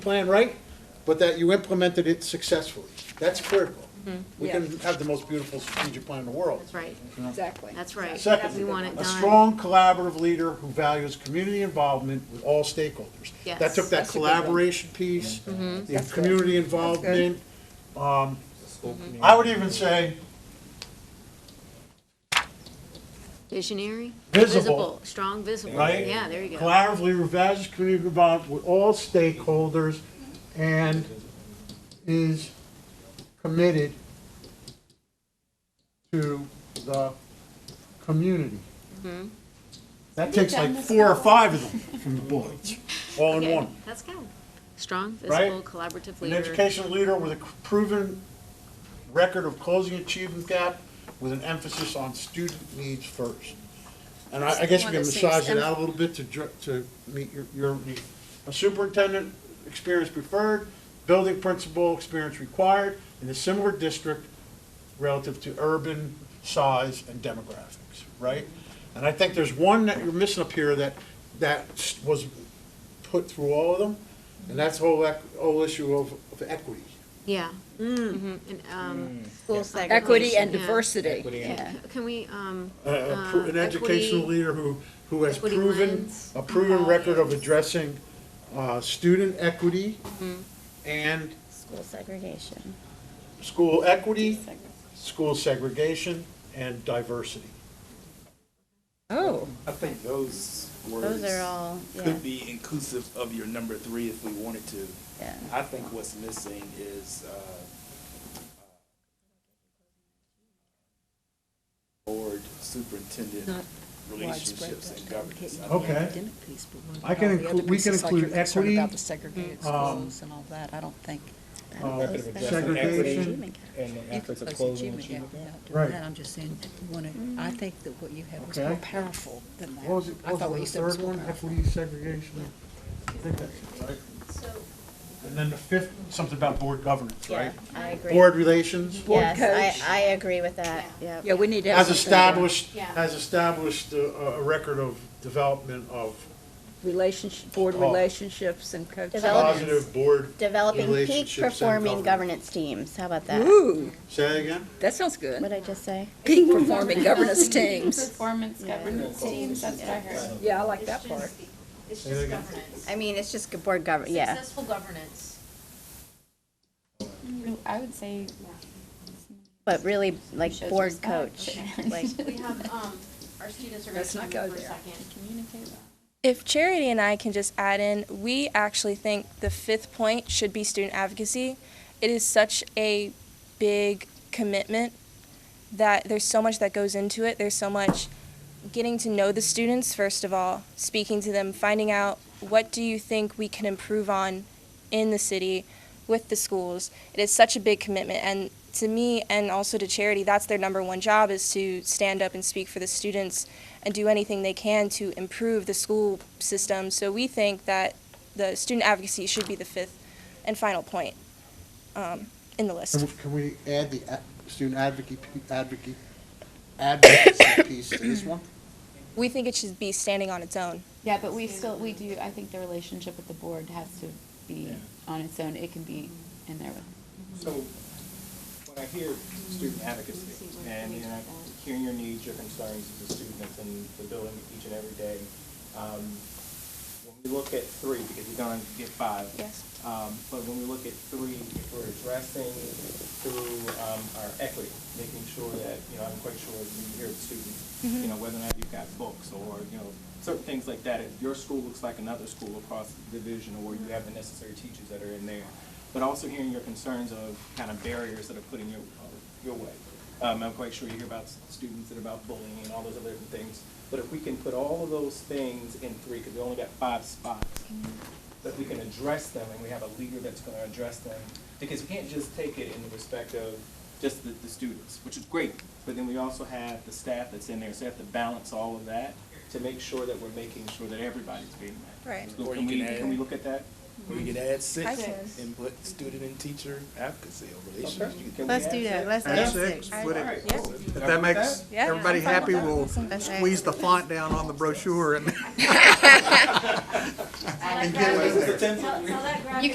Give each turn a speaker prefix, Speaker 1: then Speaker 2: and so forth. Speaker 1: plan right, but that you implemented it successfully. That's critical. We can have the most beautiful strategic plan in the world.
Speaker 2: That's right,
Speaker 1: you know?
Speaker 3: Exactly.
Speaker 2: that's right.
Speaker 1: Second,
Speaker 2: We want it
Speaker 1: a
Speaker 2: done.
Speaker 1: strong collaborative leader who values community involvement with all stakeholders.
Speaker 2: Yes.
Speaker 1: That took that
Speaker 3: That's a good one.
Speaker 1: collaboration piece, the
Speaker 3: That's good.
Speaker 1: community involvement. um,
Speaker 4: Mm-hmm.
Speaker 1: I would even say
Speaker 2: Visionary?
Speaker 1: Visible.
Speaker 2: Strong visible.
Speaker 1: Right?
Speaker 2: Yeah, there you go.
Speaker 1: collaboratively revises community involvement with all stakeholders and is committed to the community. That takes like four or five of them from the bullets, all in
Speaker 2: Okay,
Speaker 1: one.
Speaker 2: That's good. Strong,
Speaker 1: Right?
Speaker 2: visible, collaborative
Speaker 1: An
Speaker 2: leader.
Speaker 1: educational leader with a proven record of closing achievement gap with an emphasis on student needs first. And I, I guess we can massage it out a little bit to, dr- to meet your, your, need. a superintendent experience preferred, building principal experience required in a similar district relative to urban size and demographics, right? And I think there's one that you're missing up here that, that was put through all of them, and that's the whole, ec- whole issue of, of equity.
Speaker 2: Yeah. Mhm, and, um,
Speaker 1: Mm.
Speaker 3: Equity and
Speaker 2: Yeah.
Speaker 3: diversity.
Speaker 2: yeah. Can we, um,
Speaker 1: A- a pro- An
Speaker 2: Uh,
Speaker 1: educational
Speaker 2: equity-
Speaker 1: leader who, who has
Speaker 2: equity
Speaker 1: proven,
Speaker 2: lens.
Speaker 1: a proven
Speaker 2: Mhm.
Speaker 1: record of addressing uh, student equity
Speaker 2: Mm-hmm.
Speaker 1: and
Speaker 4: School segregation.
Speaker 1: school equity,
Speaker 4: Segregation.
Speaker 1: school segregation, and diversity.
Speaker 3: Oh,
Speaker 5: I think those words
Speaker 4: Those are all, yeah,
Speaker 5: could be inclusive of your number three if we wanted to.
Speaker 4: yeah.
Speaker 5: I think what's missing is, uh, board superintendent relationships and governance. I think
Speaker 1: Okay.
Speaker 3: academic piece, but what
Speaker 1: I can
Speaker 3: about the other
Speaker 1: include- we can
Speaker 3: pieces, like you're
Speaker 1: include
Speaker 3: concerned
Speaker 1: equity, um,
Speaker 3: About the segregated schools and all that, I don't think.
Speaker 1: Segregation.
Speaker 4: Achievement gap.
Speaker 6: And
Speaker 3: You
Speaker 6: the efforts
Speaker 3: could
Speaker 6: of
Speaker 3: place
Speaker 6: closing
Speaker 3: achievement gap
Speaker 6: achievement gap.
Speaker 3: without doing
Speaker 1: Right.
Speaker 3: that. I'm just saying, that you wanna- I think that what you had was
Speaker 1: Okay.
Speaker 3: more powerful than that.
Speaker 1: What was it,
Speaker 3: I
Speaker 1: what
Speaker 3: thought what you
Speaker 1: was the
Speaker 3: said was
Speaker 1: third
Speaker 3: more
Speaker 1: one,
Speaker 3: powerful.
Speaker 1: equity, segregation? I think that's it, right? And then the fifth, something about board governance,
Speaker 4: Yeah,
Speaker 1: right?
Speaker 4: I agree.
Speaker 1: Board relations,
Speaker 4: Yes, I, I agree with that, yep.
Speaker 3: Yeah, we need to
Speaker 1: has
Speaker 3: have. something about
Speaker 1: established,
Speaker 2: Yeah.
Speaker 1: has established a, a record of development of
Speaker 3: Relationship, board
Speaker 1: Oh.
Speaker 3: relationships and coaching.
Speaker 4: Development.
Speaker 1: positive board,
Speaker 4: Developing peak
Speaker 1: Relationships and
Speaker 4: performing
Speaker 1: governance.
Speaker 4: governance teams, how about that?
Speaker 3: Ooh,
Speaker 1: say that again?
Speaker 3: that sounds good.
Speaker 4: What'd I just say?
Speaker 3: Peak performing governance teams.
Speaker 7: Performance
Speaker 4: Yeah.
Speaker 7: governance teams, that's what I heard.
Speaker 3: Yeah, I like that part.
Speaker 8: It's
Speaker 1: Say that
Speaker 8: just
Speaker 1: again.
Speaker 8: governance.
Speaker 4: I mean, it's just good board govern, yeah.
Speaker 8: Successful governance.
Speaker 7: I would say.
Speaker 4: But really, like,
Speaker 7: Shows
Speaker 4: board
Speaker 7: respect.
Speaker 4: coach, like,
Speaker 8: We have, um, our students are going
Speaker 3: Let's
Speaker 8: to come
Speaker 3: not go
Speaker 8: in for a
Speaker 3: there.
Speaker 8: second.
Speaker 7: Communicate well.
Speaker 9: If Charity and I can just add in, we actually think the fifth point should be student advocacy. It is such a big commitment that there's so much that goes into it. There's so much getting to know the students, first of all, speaking to them, finding out what do you think we can improve on in the city with the schools. It is such a big commitment. And to me and also to Charity, that's their number one job is to stand up and speak for the students and do anything they can to improve the school system. So we think that the student advocacy should be the fifth and final point um, in the list.
Speaker 1: Can we- Can we add the a- student advocacy, advocacy, advocacy piece to this one?
Speaker 9: We think it should be standing on its own.
Speaker 7: Yeah, but we still, we do, I think the relationship with the board has to be on its own, it can be in there with.
Speaker 6: So when I hear student advocacy and, you know, hearing your needs, your concerns as a student that's in the building each and every day, um, when we look at three, because you're gonna get five.
Speaker 9: Yes.
Speaker 6: Um, but when we look at three, we're addressing through, um, our equity, making sure that, you know, I'm quite sure when you hear the students, you know, whether or not you've got books or, you know, certain things like that, if your school looks like another school across the division or you have the necessary teachers that are in there. But also hearing your concerns of kind of barriers that are put in your, uh, your way. Um, I'm quite sure you hear about s- students and about bullying and all those other different things. But if we can put all of those things in three, because we only got five spots, that we can address them and we have a leader that's gonna address them. Because you can't just take it in the respect of just the, the students, which is great, but then we also have the staff that's in there, so we have to balance all of that to make sure that we're making sure that everybody's being met.
Speaker 9: Right.
Speaker 5: Or
Speaker 6: So
Speaker 5: you
Speaker 6: can we,
Speaker 5: can add-
Speaker 6: can we look at that?
Speaker 5: We could add
Speaker 9: I
Speaker 5: six
Speaker 9: can.
Speaker 5: and put student and teacher advocacy or relationship.
Speaker 6: Can we
Speaker 4: Let's
Speaker 6: add
Speaker 4: do that, let's
Speaker 10: Add
Speaker 4: add
Speaker 10: six,
Speaker 4: six.
Speaker 10: put it,
Speaker 6: Alright, cool.
Speaker 10: if that makes
Speaker 9: Yeah.
Speaker 10: everybody happy, we'll
Speaker 4: That's right.
Speaker 10: squeeze the font down on the brochure and
Speaker 8: Tell
Speaker 10: get it in there.
Speaker 8: tell that